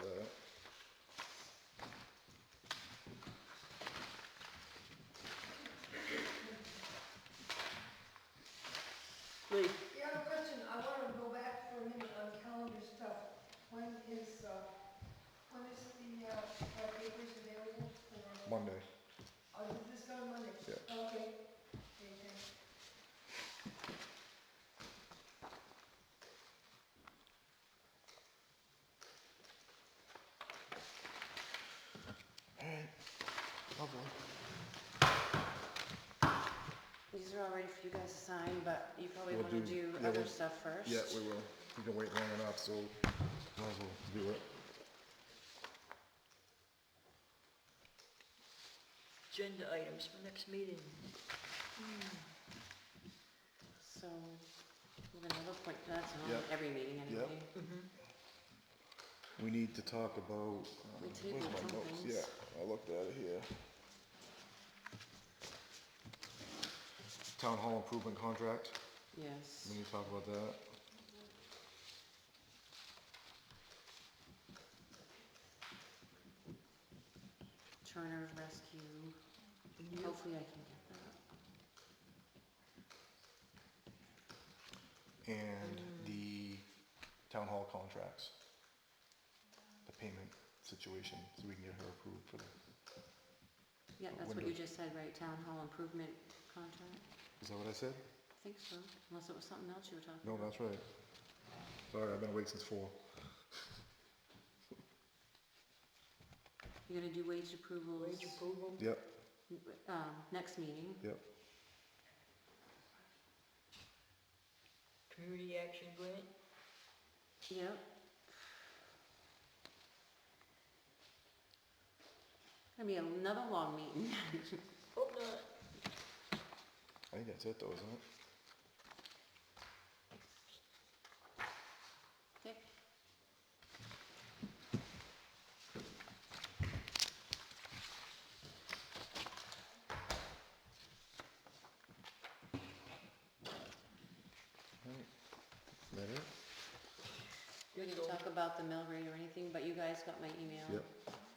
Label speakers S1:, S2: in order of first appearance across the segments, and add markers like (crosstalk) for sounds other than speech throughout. S1: uh,
S2: uh,
S1: Monday.
S2: Oh, you just go on Monday?
S1: Yeah.
S2: Okay. Okay.
S1: Lovely.
S3: These are all ready for you guys to sign, but you probably
S1: We'll
S3: want to
S1: do-
S3: do
S1: yeah,
S3: other
S1: we'll-
S3: stuff first.
S1: Yeah, we will. We've been waiting long enough, so might as well do it.
S4: Agenda items for next meeting.
S3: So, we're gonna look like that's on
S1: Yeah.
S3: every meeting
S1: Yeah.
S3: anyway.
S1: We need to talk about, um,
S3: We
S1: where's
S3: tabled
S1: my
S3: some
S1: notes?
S3: things.
S1: Yeah, I looked at it here. Town hall improvement contract,
S3: Yes.
S1: we need to talk about that.
S3: Turner Rescue. Hopefully I can get that.
S1: And the town hall contracts. The payment situation, so we can get her approved for that.
S3: Yeah, that's what
S1: window.
S3: you just said, right? Town hall improvement contract?
S1: Is that what I said?
S3: I think so, unless it was something else you were talking
S1: No,
S3: about.
S1: that's right. Sorry, I've been awake since four.
S3: You're gonna do wage approvals,
S4: Wage approval.
S1: Yep,
S3: um, next meeting.
S1: yep.
S4: Community action grant.
S3: Yep. Gonna be another long meeting. (laughs)
S4: Hope not.
S1: I think that's it though, isn't it?
S3: Dick?
S1: Right. Is that it?
S3: We didn't talk about the mill rate or anything, but you guys got my email.
S1: Yep,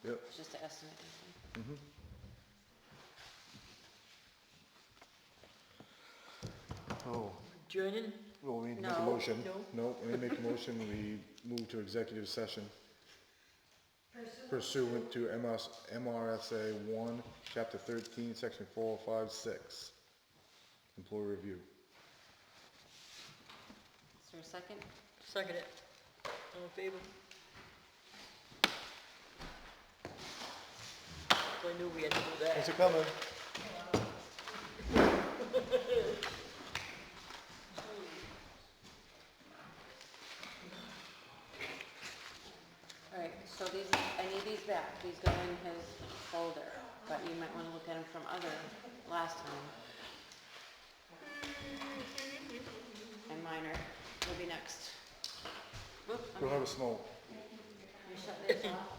S1: yep.
S3: It's Just to estimate. I
S1: Oh,
S4: Adjourning.
S1: well, we need to make a
S3: No,
S1: motion.
S4: no.
S1: No, we need to make a motion, we move to executive session
S2: Pursuant
S1: pursuant to MS, MRSA one, chapter thirteen, section four, oh five, six. Employee review.
S3: think. Is there a second?
S4: Second it. All in favor? I knew we had to do that.
S1: Thanks for coming.
S3: All right, so these, I need these back. These go in his folder, but you might wanna look at them from other, last time. And mine are, will be next. Whoop, I'm
S1: Go have a smoke.
S3: Can you shut this off?